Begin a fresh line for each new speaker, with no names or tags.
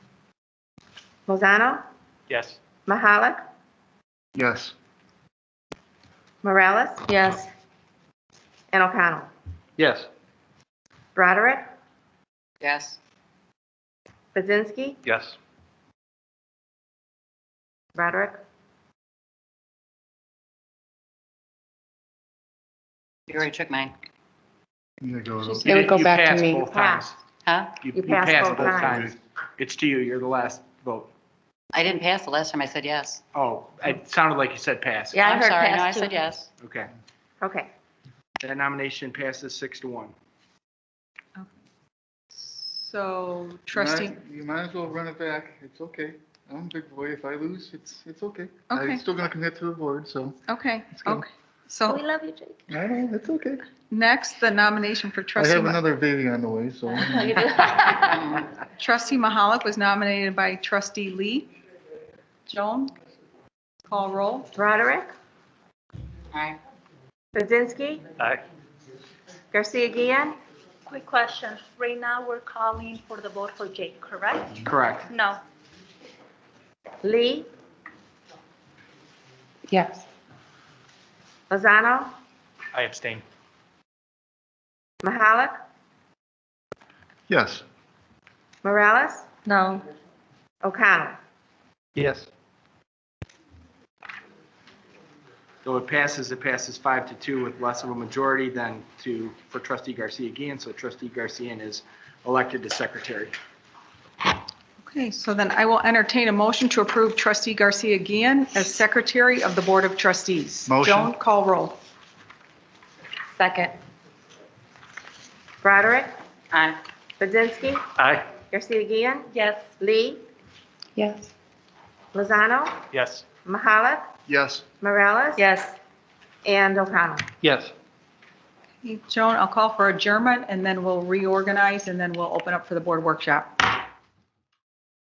Lozano,
Yes.
Mahalik,
Yes.
Morales,
Yes.
and O'Connell.
Yes.
Broderick,
Yes.
Budzinski,
Yes.
Broderick,
You already took mine.
It goes.
It would go
You
back to
passed
me.
both times.
Huh?
You passed both times.
It's to you, you're the last vote.
I didn't pass the last time I said yes.
Oh, it sounded like you said pass.
Yeah, I heard
I'm sorry, no, I
pass, too.
said yes.
Okay.
okay.
That nomination passes six to one.
So trustee,
You might as well run it back. It's okay. I'm a big boy. If I lose, it's, it's okay.
Okay.
I'm still going to commit to the board, so.
okay,
go.
okay. So
love you, Jake.
I know, it's okay.
next, the nomination for
I
trustee,
have
Ma-
another baby on the way, so.
Mm,
trustee Mahalik was nominated by trustee Lee. Joan, call roll.
Broderick,
Aye.
Budzinski,
Aye.
Garcia Guillen,
Quick question. Right now, we're calling for the vote for Jake, correct?
Correct.
No.
Lee,
Yes.
Lozano,
I abstain.
Mahalik,
Yes.
Morales,
No.
O'Connell.
Yes.
Though it passes, it passes five to two with less of a majority than to, for trustee Garcia Guillen. So trustee Garcia is elected to secretary.
Okay, so then I will entertain a motion to approve trustee Garcia Guian as secretary of the Board of Trustees.
Motion.
Joan, call roll.
Second. Broderick,
Aye.
Budzinski,
Aye.
Garcia Guillen,
Yes.
Lee,
Yes.
Lozano,
Yes.
Mahalik,
Yes.
Morales.
Yes.
And O'Connell.
Yes.
Joan, I'll call for adjournment and then we'll reorganize and then we'll open up for the board workshop.